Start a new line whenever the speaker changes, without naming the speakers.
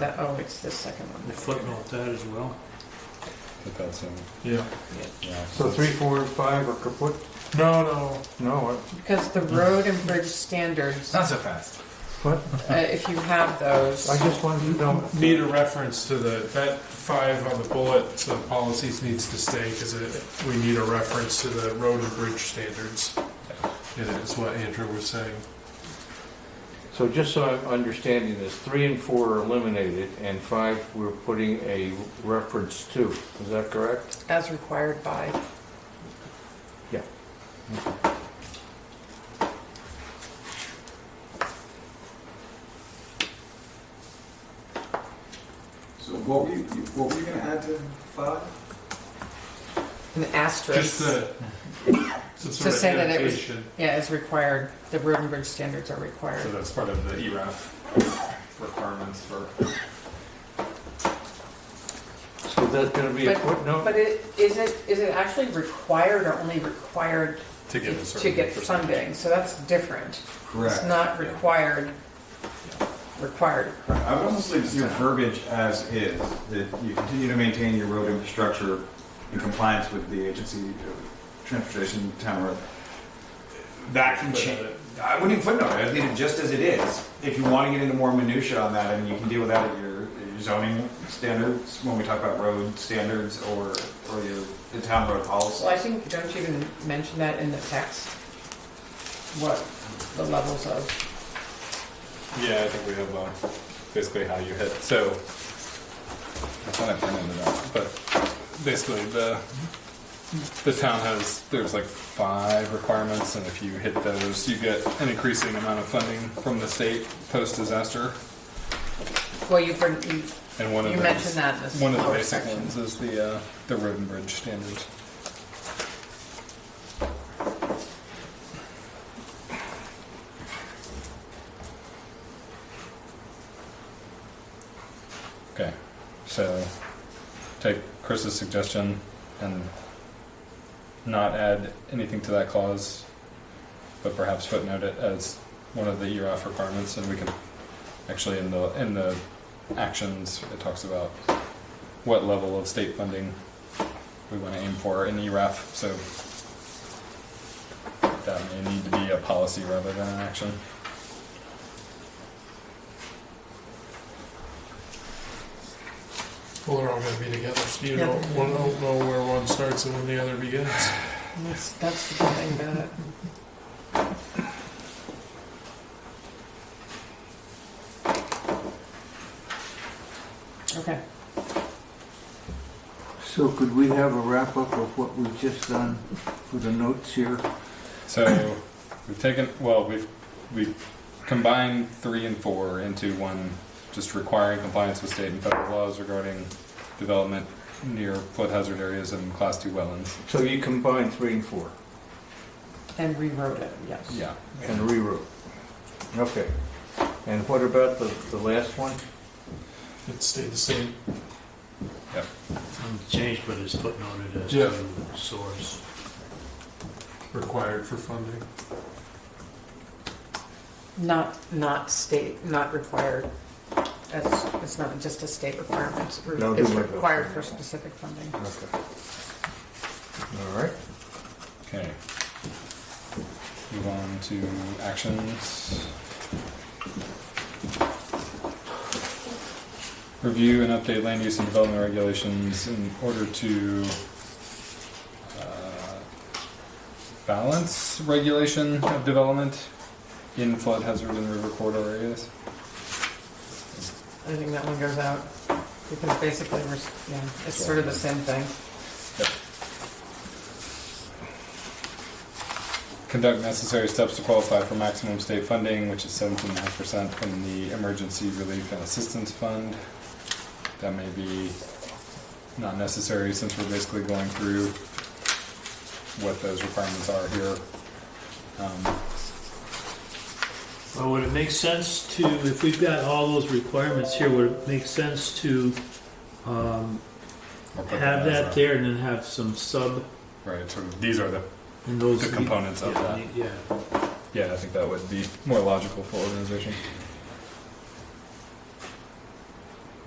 That, oh, it's the second one.
We footnote that as well.
Put that in,
Yeah.
yeah.
So three, four, and five are kaput?
No, no.
No, what?
Because the road and bridge standards, uh,
Not so fast.
What?
if you have those,
I just wanted to know.
Need a reference to the, that five on the bullet, the policies needs to stay, because we need a reference to the road and bridge standards. And it's what Andrew was saying.
So just so I'm understanding this, three and four are eliminated, and five, we're putting a reference to. Is that correct?
as required by,
So what were you, what were you gonna add to five?
an
Just
asterisk.
the, some sort of
say that it was-
annotation.
Yeah, as required, the road and bridge standards are required.
So that's part of the ERAF requirements for.
So that's gonna be a
But-
footnote?
But it, is it, is it actually required or only required
To get a
to
certain
get
percentage.
funding? So that's different. It's not
Yeah.
required, required.
I would also say your verbiage as is, that you continue to maintain your road infrastructure in compliance with the agency of transportation town road. That can change. I wouldn't even footnote it. I'd leave it just as it is. If you want to get into more minutia on that, I mean, you can deal with that at your your zoning standards, when we talk about road standards or, or your, the town road policy.
Well, I think, don't you even mention that in the text? What the levels of,
Yeah, I think we have, uh, basically how you hit, so,
I thought I printed it out.
but basically the, the town has, there's like five requirements, and if you hit those, you get an increasing amount of funding from the state post-disaster.
well, you bring, you
And one of
You
those,
mentioned that in this
one of the
lower
basic
section.
ones is the uh, the road and bridge standard. Okay, so take Chris's suggestion and not add anything to that clause, but perhaps footnote it as one of the ERAF requirements, and we can actually in the in the actions, it talks about what level of state funding we want to aim for in E ERAF, so that may need to be a policy rather than an action.
Well, they're all gonna be together, so you
Yeah.
don't, one don't know where one starts and when the other begins.
That's, that's the good thing about it. Okay,
So could we have a wrap-up of what we've just done for the notes here?
So we've taken, well, we've, we've combined three and four into one, just requiring compliance with state and federal laws regarding development near flood hazard areas and class two wetlands.
So you combined three and four
and rewrote it, yes.
Yeah.
and rewrote. Okay. And what about the, the last one?
It stayed the same.
Um, Changed, but it's footnoted as
Yeah.
to source.
Required for funding.
Not, not state, not required. That's, it's not just a state requirement. It's re-
No, do
It's
my best.
required for specific funding.
Okay. All right.
Okay. Move on to actions. Review and update land use and development regulations in order to uh, balance regulation of development in flood hazard and river corridor areas.
I think that one goes out, because basically we're, s- yeah, it's sort of the same thing.
Conduct necessary steps to qualify for maximum state funding, which is seventeen and a half percent from the Emergency Relief and Assistance Fund. That may be not necessary since we're basically going through what those requirements are here. Um,
Well, would it make sense to, if we've got all those requirements here, would it make sense to um,
I'll put
have
as
that
a-
there and then have some sub
Right, so these are the,
in those?
The components of
Yeah,
that.
Yeah,
yeah, I think that would be more logical for organization.